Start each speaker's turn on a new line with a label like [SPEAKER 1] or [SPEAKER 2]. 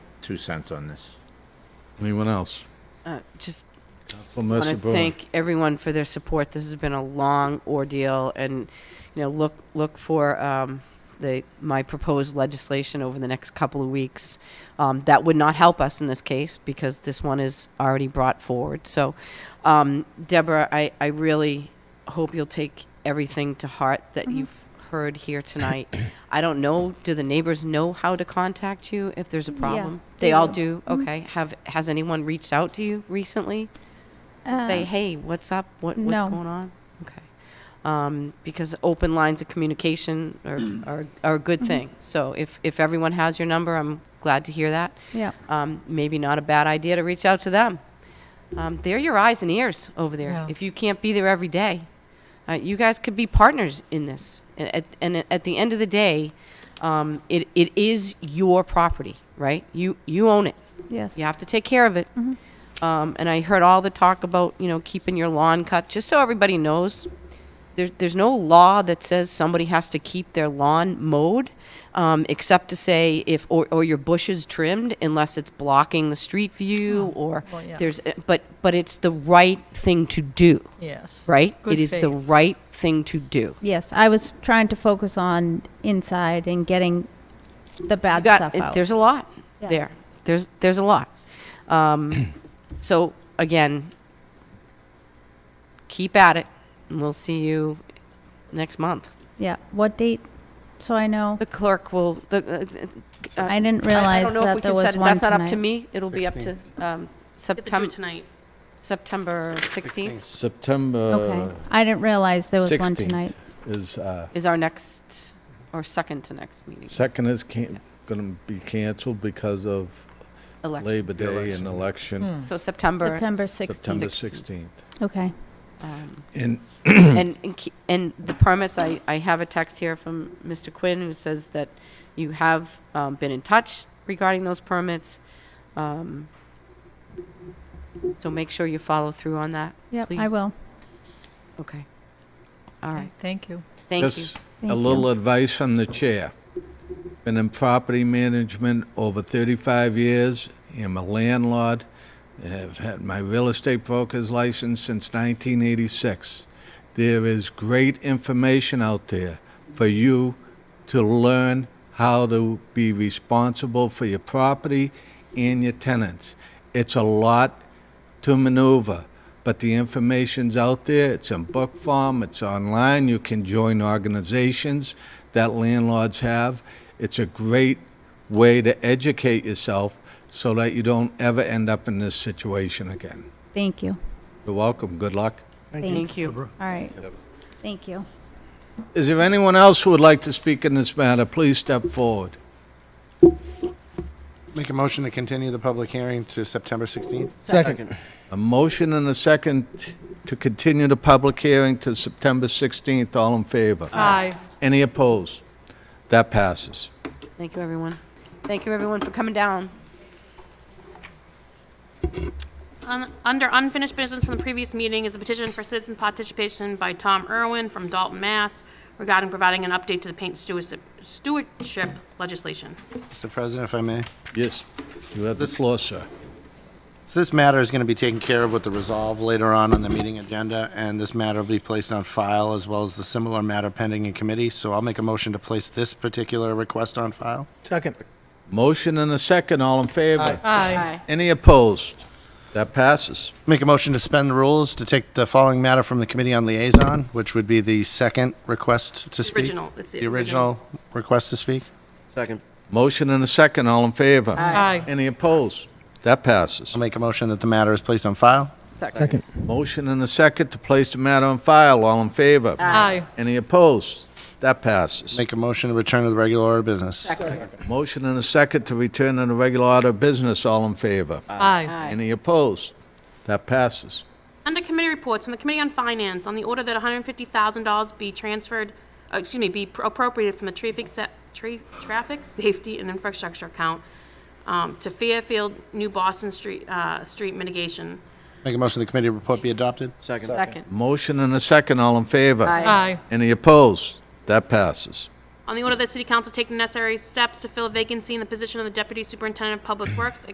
[SPEAKER 1] two cents on this.
[SPEAKER 2] Anyone else?
[SPEAKER 3] Uh, Just
[SPEAKER 2] Council
[SPEAKER 3] want to
[SPEAKER 2] Mercer Brewer.
[SPEAKER 3] thank everyone for their support. This has been a long ordeal, and, you know, look, look for um, the, my proposed legislation over the next couple of weeks. Um, That would not help us in this case, because this one is already brought forward. So, um, Deborah, I, I really hope you'll take everything to heart that you've heard here tonight. I don't know, do the neighbors know how to contact you if there's a problem? They
[SPEAKER 4] they
[SPEAKER 3] all
[SPEAKER 4] do.
[SPEAKER 3] do? Okay. Have, has anyone reached out to you recently? to say,
[SPEAKER 4] Uh,
[SPEAKER 3] hey, what's up? What, what's
[SPEAKER 4] no.
[SPEAKER 3] going on? Okay. Um, because open lines of communication are, are, are a
[SPEAKER 4] Mm-hmm.
[SPEAKER 3] good thing. So if, if everyone has your number, I'm glad to hear that.
[SPEAKER 4] Yeah.
[SPEAKER 3] Um, maybe not a bad idea to reach out to them. Um, they're your eyes and ears over there.
[SPEAKER 5] Yeah.
[SPEAKER 3] If you can't be there every day, uh, you guys could be partners in this. And at, and at the end of the day, um, it, it is your property, right? You, you own it.
[SPEAKER 4] Yes.
[SPEAKER 3] You have to take care of it.
[SPEAKER 5] Mm-hmm.
[SPEAKER 3] Um, and I heard all the talk about, you know, keeping your lawn cut, just so everybody knows. There, there's no law that says somebody has to keep their lawn mowed, um, except to say if, or, or your bushes trimmed, unless it's blocking the street view or
[SPEAKER 5] Oh, well, yeah.
[SPEAKER 3] there's, eh, but, but it's the right thing to do,
[SPEAKER 5] Yes.
[SPEAKER 3] right?
[SPEAKER 5] Good
[SPEAKER 3] It is the
[SPEAKER 5] faith.
[SPEAKER 3] right thing to do.
[SPEAKER 4] Yes, I was trying to focus on inside and getting the bad
[SPEAKER 3] You got-
[SPEAKER 4] stuff
[SPEAKER 3] it-
[SPEAKER 4] out.
[SPEAKER 3] There's a lot
[SPEAKER 4] Yeah.
[SPEAKER 3] there. There's there's a lot. Um, so again, keep at it, and we'll see you next month.
[SPEAKER 4] yeah. What date? So I know.
[SPEAKER 3] The clerk will. The, uh, uh,
[SPEAKER 4] I didn't
[SPEAKER 3] I
[SPEAKER 4] realize
[SPEAKER 3] don't know if we
[SPEAKER 4] that there
[SPEAKER 3] can
[SPEAKER 4] was
[SPEAKER 3] set it.
[SPEAKER 4] one
[SPEAKER 3] That's not
[SPEAKER 4] tonight.
[SPEAKER 3] up to me. It'll be up to um,
[SPEAKER 6] Get the two
[SPEAKER 3] September
[SPEAKER 6] tonight.
[SPEAKER 3] September 16th
[SPEAKER 2] September.
[SPEAKER 4] Okay. I didn't realize there was one
[SPEAKER 2] 16th
[SPEAKER 4] tonight.
[SPEAKER 2] Is, uh,
[SPEAKER 3] is our next or second to next meeting
[SPEAKER 2] second is can, gonna be canceled because of
[SPEAKER 3] election.
[SPEAKER 2] Labor Day
[SPEAKER 1] Election.
[SPEAKER 2] and
[SPEAKER 4] Hmm.
[SPEAKER 2] election,
[SPEAKER 3] So September
[SPEAKER 4] September
[SPEAKER 3] s-
[SPEAKER 4] 16th.
[SPEAKER 2] September 16th.
[SPEAKER 3] Sixteenth.
[SPEAKER 4] Okay.
[SPEAKER 3] um,
[SPEAKER 7] And
[SPEAKER 4] Mm.
[SPEAKER 3] And, and ke- and the permits, I, I have a text here from Mr. Quinn who says that you have um, been in touch regarding those permits. Um, So make sure you follow through on that.
[SPEAKER 4] Yep, I
[SPEAKER 3] please.
[SPEAKER 4] will.
[SPEAKER 3] Okay. All right,
[SPEAKER 5] Thank you.
[SPEAKER 3] thank you.
[SPEAKER 2] Just
[SPEAKER 4] Thank
[SPEAKER 2] a
[SPEAKER 4] you.
[SPEAKER 2] little advice from the chair. Been in property management over 35 years. I'm a landlord. Have had my real estate broker's license since 1986. There is great information out there for you to learn how to be responsible for your property and your tenants. It's a lot to maneuver. But the information's out there, it's in book form, it's online, you can join organizations that landlords have. It's a great way to educate yourself so that you don't ever end up in this situation again.
[SPEAKER 4] Thank you.
[SPEAKER 2] You're welcome, good luck.
[SPEAKER 3] Thank you.
[SPEAKER 4] All right. Thank you.
[SPEAKER 2] Is there anyone else who would like to speak in this matter? Please step forward.
[SPEAKER 8] Make a motion to continue the public hearing to September 16th?
[SPEAKER 7] second,
[SPEAKER 2] A motion and a second to continue the public hearing to September 16th, all in favor?
[SPEAKER 5] Aye.
[SPEAKER 2] Any opposed? That passes.
[SPEAKER 3] Thank you, everyone. Thank you, everyone, for coming down.
[SPEAKER 6] Un- Under unfinished business from the previous meeting is a petition for citizen participation by Tom Irwin from Dalton, Mass. regarding providing an update to the paint stewardship- stewardship legislation.
[SPEAKER 8] Mr. President, if I may.
[SPEAKER 2] Yes, you have the floor, sir.
[SPEAKER 8] So this matter is going to be taken care of with the resolve later on on the meeting agenda, and this matter will be placed on file as well as the similar matter pending in committee. So I'll make a motion to place this particular request on file.
[SPEAKER 7] second.
[SPEAKER 2] Motion and a second, all in favor?
[SPEAKER 5] Aye.
[SPEAKER 2] Any opposed? That passes.
[SPEAKER 8] Make a motion to suspend the rules to take the following matter from the Committee on Liaison, which would be the second request to speak.
[SPEAKER 6] Original, it's the
[SPEAKER 8] The original request to speak.
[SPEAKER 7] Second.
[SPEAKER 2] Motion and a second, all in favor?
[SPEAKER 5] Aye.
[SPEAKER 2] Any opposed? That passes.
[SPEAKER 8] I'll make a motion that the matter is placed on file.
[SPEAKER 7] Second.
[SPEAKER 2] Motion and a second to place the matter on file, all in favor?
[SPEAKER 5] Aye.
[SPEAKER 2] Any opposed? That passes.
[SPEAKER 8] Make a motion to return to the regular order of business.
[SPEAKER 2] Motion and a second to return to the regular order of business, all in favor?
[SPEAKER 5] Aye.
[SPEAKER 3] Aye.
[SPEAKER 2] Any opposed? That passes.
[SPEAKER 6] Under committee reports, from the Committee on Finance, on the order that $150,000 be transferred, uh, excuse me, be pr- appropriated from the traffic, se- tra- traffic safety and infrastructure account um, to Fairfield, New Boston Street, uh, Street mitigation.
[SPEAKER 8] Make a motion the committee report be adopted.
[SPEAKER 7] Second.
[SPEAKER 3] Second.
[SPEAKER 2] Motion and a second, all in favor?
[SPEAKER 3] Aye.
[SPEAKER 5] Aye.
[SPEAKER 2] Any opposed? That passes.
[SPEAKER 6] On On the order that City Council take the necessary steps to fill a vacancy in the position of the Deputy Superintendent of Public Works,